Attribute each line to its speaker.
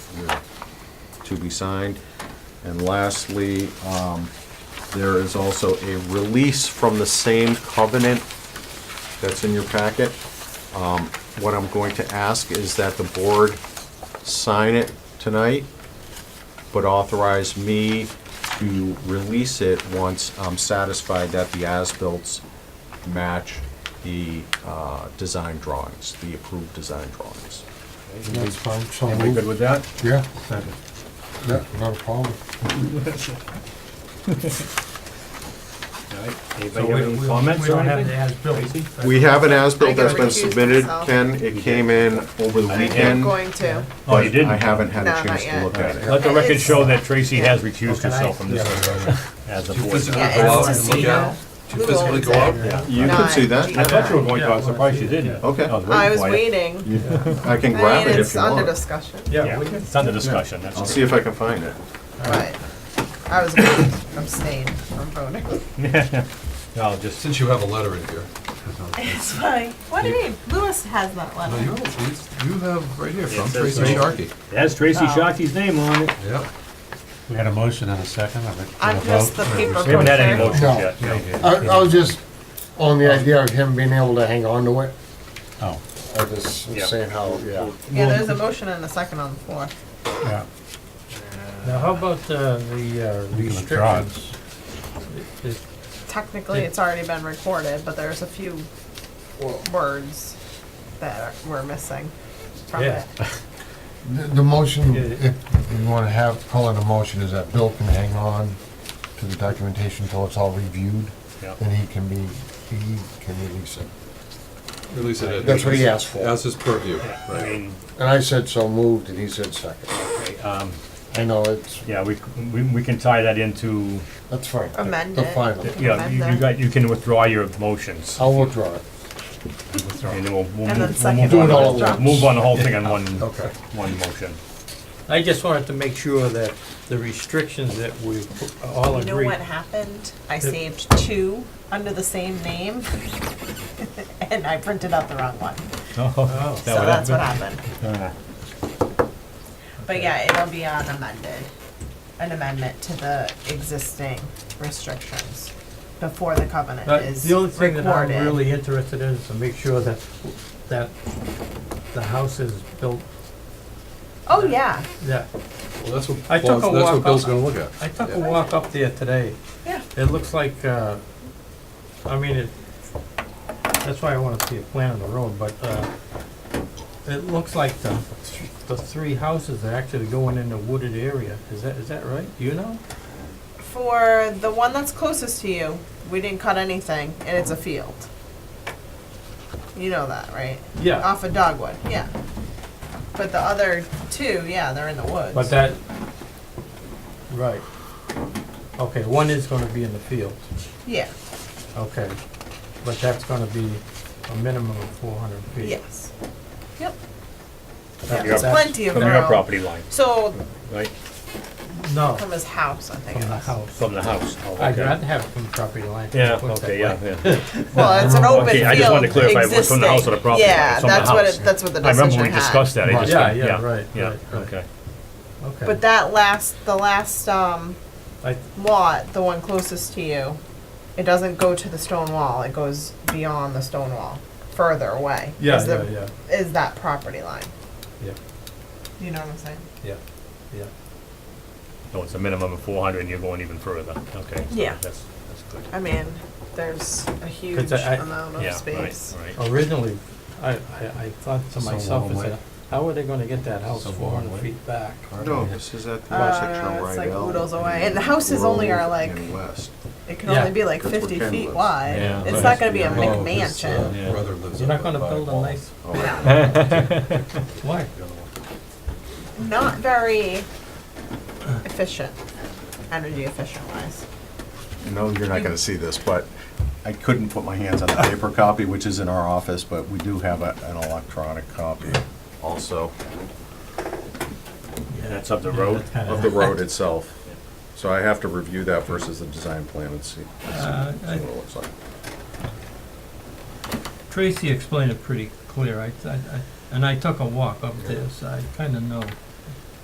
Speaker 1: to be signed. And lastly, um, there is also a release from the same covenant that's in your packet. Um, What I'm going to ask is that the board sign it tonight, but authorize me to release it once I'm satisfied that the as-bills match the uh, design drawings, the approved design drawings.
Speaker 2: That's fine, so
Speaker 3: Everybody good
Speaker 2: moved.
Speaker 3: with that?
Speaker 2: Yeah, yeah, not a problem.
Speaker 3: All right. Anybody have any comments or anything?
Speaker 1: We have an as-built
Speaker 4: I gotta
Speaker 1: that's been
Speaker 4: recuse
Speaker 1: submitted,
Speaker 4: myself.
Speaker 1: Ken. It came in over the
Speaker 4: I'm
Speaker 1: weekend.
Speaker 4: going to.
Speaker 3: Oh, you didn't?
Speaker 1: I haven't had
Speaker 4: No,
Speaker 1: a
Speaker 4: not
Speaker 1: chance to
Speaker 4: yet.
Speaker 1: look at it.
Speaker 3: Let the record show that Tracy
Speaker 4: Yeah.
Speaker 3: has recused herself from this as a board.
Speaker 4: Yeah, it's to see how
Speaker 5: physically go out?
Speaker 3: Yeah.
Speaker 1: You can see that.
Speaker 3: I thought you were
Speaker 1: yeah.
Speaker 3: going to, I was surprised you didn't.
Speaker 1: Okay.
Speaker 3: I was waiting
Speaker 4: I was
Speaker 3: for you.
Speaker 4: waiting.
Speaker 1: I can
Speaker 4: I
Speaker 1: grab
Speaker 4: mean,
Speaker 1: it if
Speaker 4: it's
Speaker 1: you
Speaker 4: under
Speaker 1: want.
Speaker 4: discussion,
Speaker 3: Yeah, it's under discussion, that's
Speaker 1: I'll
Speaker 3: all.
Speaker 1: see if I can find it.
Speaker 4: but I was going to abstain from voting.
Speaker 3: I'll just,
Speaker 5: Since you have a letter in here.
Speaker 4: It's fine. What do you mean? Lewis has that
Speaker 5: No,
Speaker 4: letter.
Speaker 5: you have, you have right here
Speaker 3: Yeah, it
Speaker 5: from
Speaker 3: says
Speaker 5: Tracy
Speaker 3: so.
Speaker 5: Sharkey.
Speaker 3: it has Tracy
Speaker 4: Oh.
Speaker 3: Shockey's name on it.
Speaker 5: Yep.
Speaker 6: We had a motion and a second, I think.
Speaker 4: I'm just the paper.
Speaker 3: We haven't had any
Speaker 4: cutter.
Speaker 3: motions
Speaker 2: No.
Speaker 3: yet.
Speaker 2: I, I was just on the idea of him being able to hang on to it.
Speaker 6: Oh,
Speaker 2: I just was
Speaker 3: Yeah.
Speaker 2: saying how, yeah.
Speaker 4: Yeah, there's a motion and a second on the floor.
Speaker 6: yeah.
Speaker 7: Now, how about uh, the uh,
Speaker 6: We can withdraw it.
Speaker 7: restrictions? It-
Speaker 4: Technically, it's already been recorded, but there's a few words that we're missing from
Speaker 7: Yeah.
Speaker 4: it.
Speaker 2: The, the motion,
Speaker 7: Yeah.
Speaker 2: if you wanna have, call it a motion, is that Bill can hang on to the documentation until it's all reviewed,
Speaker 3: Yeah.
Speaker 2: then he can be, he can release it.
Speaker 5: Release it. at-
Speaker 2: That's what he asked for.
Speaker 5: As his purview,
Speaker 3: I
Speaker 5: right.
Speaker 3: mean,
Speaker 2: And I said so moved, and he said second.
Speaker 3: okay, um,
Speaker 2: I know, it's,
Speaker 3: yeah, we, c- we, we can tie that into,
Speaker 2: that's fine.
Speaker 4: Amend
Speaker 2: The
Speaker 4: it.
Speaker 2: final.
Speaker 3: yeah, you, you got, you can withdraw your motions.
Speaker 2: I'll withdraw it.
Speaker 3: And then we'll, we'll
Speaker 4: And
Speaker 3: move, we'll
Speaker 4: then
Speaker 3: move
Speaker 4: second.
Speaker 2: Do it
Speaker 3: on,
Speaker 4: one
Speaker 2: all
Speaker 4: was
Speaker 2: at
Speaker 4: dropped.
Speaker 2: once.
Speaker 3: move on the whole thing on one,
Speaker 2: Okay.
Speaker 3: one motion.
Speaker 7: I just wanted to make sure that the restrictions that we all
Speaker 4: You know
Speaker 7: agree.
Speaker 4: what happened? I saved two under the same name, and I printed out the wrong one.
Speaker 3: Oh,
Speaker 4: So that's what happened. But yeah, it'll be an amended, an amendment to the existing restrictions before the covenant
Speaker 7: But
Speaker 4: is
Speaker 7: the only thing that I'm
Speaker 4: recorded.
Speaker 7: really interested in is to make sure that, that the house is built,
Speaker 4: Oh, yeah,
Speaker 7: that,
Speaker 5: Well, that's what,
Speaker 7: I took
Speaker 5: Paul's- that's
Speaker 7: a
Speaker 5: what
Speaker 7: walk
Speaker 5: Bill's
Speaker 7: up-
Speaker 5: gonna look at.
Speaker 7: I took
Speaker 5: Yeah.
Speaker 7: a walk up there today.
Speaker 4: yeah.
Speaker 7: It looks like, uh, I mean, it, that's why I wanna see a plan of the road, but, uh, it looks like the, th- the three houses are actually going in a wooded area. Is that, is that right? Do you know?
Speaker 4: For the one that's closest to you, we didn't cut anything, and it's a field. You know that, right?
Speaker 7: Yeah,
Speaker 4: Off of Dogwood, yeah. But the other two, yeah, they're in the woods.
Speaker 7: but that, right. Okay, one is gonna be in the field,
Speaker 4: Yeah,
Speaker 7: okay. But that's gonna be a minimum of four hundred feet.
Speaker 4: yes. Yep.
Speaker 7: That's-
Speaker 4: Yeah, there's
Speaker 7: that's
Speaker 4: plenty of
Speaker 3: From
Speaker 4: their
Speaker 3: your
Speaker 4: own.
Speaker 3: property line,
Speaker 4: So
Speaker 3: right,
Speaker 7: No,
Speaker 4: from his house, I think.
Speaker 7: from
Speaker 4: it
Speaker 7: the
Speaker 4: was.
Speaker 7: house.
Speaker 3: from the house. Oh,
Speaker 7: I'd
Speaker 3: okay.
Speaker 7: rather have it from property line.
Speaker 3: Yeah,
Speaker 7: Put it that
Speaker 3: okay,
Speaker 7: way.
Speaker 3: yeah, yeah.
Speaker 4: Well, it's an open field.
Speaker 3: Okay, I just wanted to clarify, it was from the house or
Speaker 4: existing.
Speaker 3: the property line,
Speaker 4: Yeah,
Speaker 3: it's from the
Speaker 4: that's what
Speaker 3: house.
Speaker 4: it, that's what the
Speaker 3: I remember we
Speaker 4: decision
Speaker 3: discussed
Speaker 4: had.
Speaker 3: that, I
Speaker 2: Right.
Speaker 3: just,
Speaker 7: Yeah,
Speaker 3: yeah,
Speaker 7: yeah, right,
Speaker 3: yeah,
Speaker 7: right, right.
Speaker 3: okay.
Speaker 7: Okay.
Speaker 4: But that last, the last, um,
Speaker 7: I-
Speaker 4: lot, the one closest to you, it doesn't go to the stone wall, it goes beyond the stone wall, further away.
Speaker 7: Yeah,
Speaker 4: is
Speaker 7: yeah,
Speaker 4: the-
Speaker 7: yeah,
Speaker 4: Is that property line,
Speaker 7: yeah,
Speaker 4: you know what I'm saying?
Speaker 7: yeah, yeah.
Speaker 3: No, it's a minimum of four hundred and you're going even further, okay. so
Speaker 4: Yeah.
Speaker 3: That's, that's good.
Speaker 4: I mean, there's a huge
Speaker 7: I-
Speaker 3: Yeah,
Speaker 4: amount of
Speaker 3: right,
Speaker 4: space.
Speaker 3: Right,
Speaker 7: Originally, I, I, I thought to
Speaker 6: It's a
Speaker 7: myself,
Speaker 6: long
Speaker 7: I
Speaker 6: way.
Speaker 7: said, how are they gonna get that house
Speaker 6: It's a
Speaker 7: four
Speaker 6: long
Speaker 7: hundred
Speaker 6: way.
Speaker 7: feet back?
Speaker 1: No, this is at the intersection
Speaker 4: Uh,
Speaker 1: of
Speaker 4: it's like
Speaker 1: Rydell.
Speaker 4: oodles away, and the houses only are
Speaker 1: Grove
Speaker 4: like,
Speaker 1: And West.
Speaker 4: it can
Speaker 7: Yeah,
Speaker 4: only be like
Speaker 1: that's where
Speaker 4: fifty
Speaker 1: Ken
Speaker 4: feet
Speaker 1: lives.
Speaker 4: wide,
Speaker 6: Yeah,
Speaker 4: it's
Speaker 6: right.
Speaker 4: not gonna be a
Speaker 5: Oh, 'cause, uh,
Speaker 4: McMansion.
Speaker 5: Brother lives
Speaker 7: You're not
Speaker 5: up
Speaker 7: gonna
Speaker 5: by
Speaker 7: build a
Speaker 5: Paul.
Speaker 7: nice,
Speaker 1: Oh,
Speaker 4: No.
Speaker 1: right.
Speaker 7: why?
Speaker 4: not very efficient, energy efficient wise.
Speaker 1: No, you're not gonna see this, but I couldn't put my hands on the paper copy, which is in our office, but we do have a- an electronic copy also
Speaker 3: and that's up the road,
Speaker 1: of the road itself. So I have to review that versus the design plan and see see
Speaker 7: Uh,
Speaker 1: what
Speaker 7: I-
Speaker 1: it looks like.
Speaker 7: Tracy explained it pretty clear, I, I, I- and I took a walk up there, so I kinda know